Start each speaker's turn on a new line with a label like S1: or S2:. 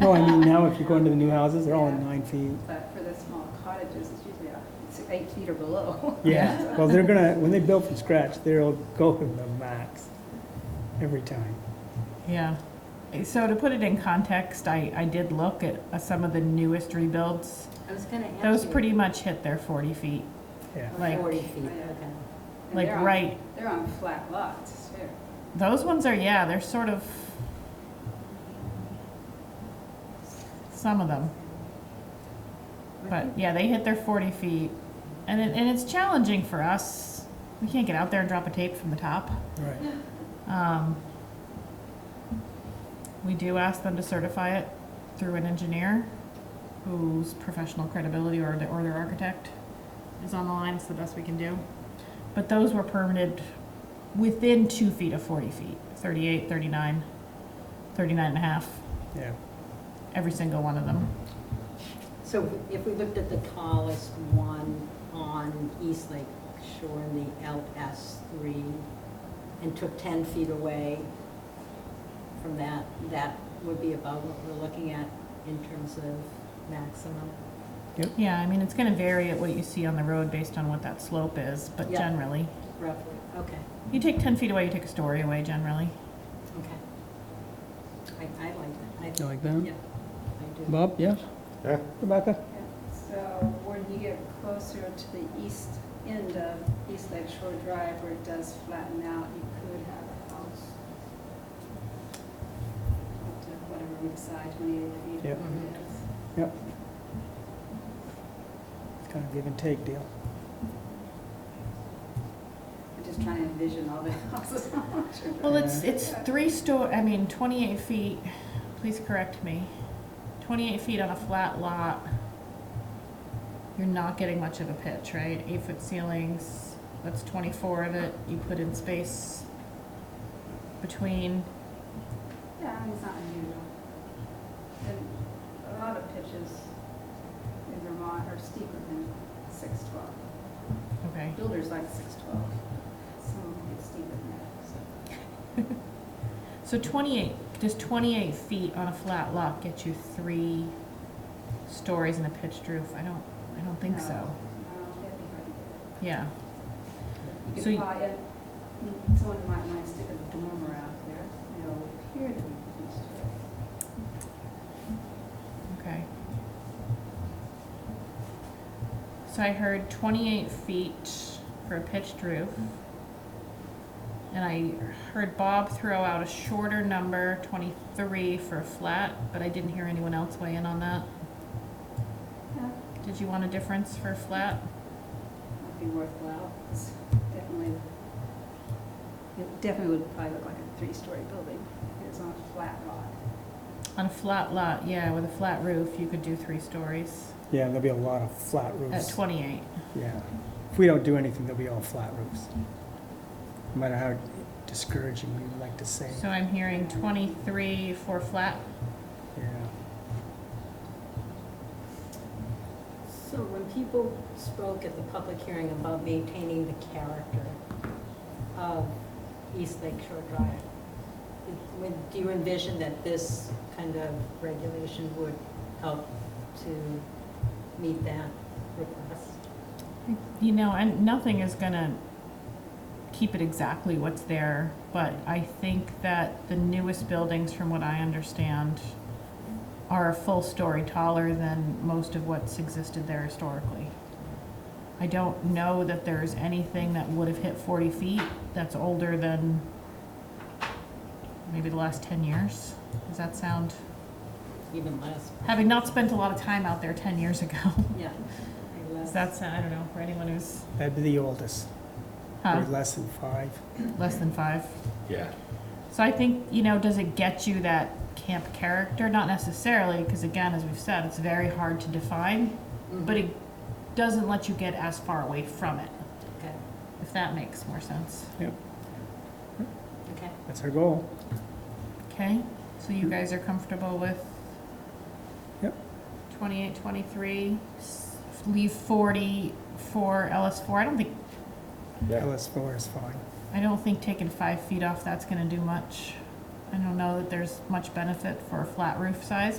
S1: No, I mean, now if you go into the new houses, they're all in nine feet.
S2: But for the small cottages, it's usually a- it's eight feet or below.
S1: Yeah, well, they're gonna, when they build from scratch, they'll go to the max every time.
S3: Yeah. So to put it in context, I, I did look at uh, some of the newest rebuilds.
S4: I was gonna ask you.
S3: Those pretty much hit their forty feet,
S1: Yeah,
S3: like-
S4: Forty feet,
S2: Yeah.
S4: okay.
S2: And
S3: like
S2: they're on-
S3: right.
S2: They're on flat lots, too.
S3: Those ones are, yeah, they're sort of, some of them. But yeah, they hit their forty feet. And it, and it's challenging for us. We can't get out there and drop a tape from the top.
S1: right.
S3: Um, We do ask them to certify it through an engineer whose professional credibility or the, or their architect is on the line, it's the best we can do. But those were permitted within two feet of forty feet, 38, 39, 39 and a half,
S1: Yeah,
S3: every single one of them.
S4: So if we looked at the tallest one on East Lake Shore in the LS three and took ten feet away from that, that would be about what we're looking at in terms of maximum.
S3: Yeah, I mean, it's gonna vary at what you see on the road based on what that slope is, but
S4: Yeah.
S3: generally,
S4: Roughly, okay,
S3: you take ten feet away, you take a story away generally.
S4: okay. I, I like that.
S1: you
S4: I,
S1: like that?
S4: yeah, I do.
S1: Bob, yes?
S5: Yeah.
S1: Rebecca?
S2: Yeah. So when you get closer to the east end of East Lake Shore Drive where it does flatten out, you could have a house. Up to Whatever we decide, 28 feet.
S1: Yep.
S2: it is.
S1: It's kind of give and take deal.
S2: I'm just trying to envision all the houses.
S3: Well, it's,
S1: Yeah.
S3: it's three sto, I mean, twenty-eight feet, please correct me, twenty-eight feet on a flat lot, you're not getting much of a pitch, right? Eight-foot ceilings, that's twenty-four of it, you put in space between,
S2: Yeah, I mean, it's not unusual. And a lot of pitches in Vermont are steeper than 612.
S3: okay,
S2: Builders like 612. Some get steeper than that, so.
S3: so twenty-eight, does twenty-eight feet on a flat lot get you three stories and a pitched roof? I don't, I don't think
S2: No.
S3: so,
S2: Um, that'd be hard to get.
S3: yeah.
S2: You
S3: So
S2: could
S3: you-
S2: probably, someone might, might stick a dormer out there, you know, here to be used to it.
S3: Okay. So I heard twenty-eight feet for a pitched roof. And I heard Bob throw out a shorter number, twenty-three for a flat, but I didn't hear anyone else weigh in on that.
S2: Yeah,
S3: Did you want a difference for a flat?
S2: that'd be worthwhile. It's definitely, it definitely would probably look like a three-story building. if It's on a flat lot.
S3: On a flat lot, yeah, with a flat roof, you could do three stories
S1: Yeah, there'll be a lot of flat
S3: at
S1: roofs.
S3: twenty-eight.
S1: Yeah. If we don't do anything, there'll be all flat roofs. No matter how discouraging we would like to say.
S3: So I'm hearing twenty-three for flat.
S1: Yeah.
S4: So when people spoke at the public hearing about maintaining the character of East Lake Shore Drive, it- when- do you envision that this kind of regulation would help to meet that request?
S3: You know, and nothing is gonna keep it exactly what's there, but I think that the newest buildings, from what I understand, are a full story taller than most of what's existed there historically. I don't know that there's anything that would have hit forty feet that's older than maybe the last ten years. Does that sound,
S4: Even less,
S3: having not spent a lot of time out there ten years ago,
S4: yeah. or less.
S3: does that sound, I don't know, for anyone who's,
S1: That'd be the oldest,
S3: huh,
S1: or less than five.
S3: less than five?
S5: Yeah.
S3: So I think, you know, does it get you that camp character? Not necessarily, because again, as we've said, it's very hard to define,
S4: Mm-hmm.
S3: but it doesn't let you get as far away from it,
S4: Okay,
S3: if that makes more sense.
S4: okay.
S1: That's our goal.
S3: Okay? So you guys are comfortable with?
S1: Yep.
S3: 28, 23, s- leave 40 for LS4. I don't think,
S5: Yeah.
S1: LS4 is fine.
S3: I don't think taking five feet off that's going to do much. I don't know that there's much benefit for a flat roof size,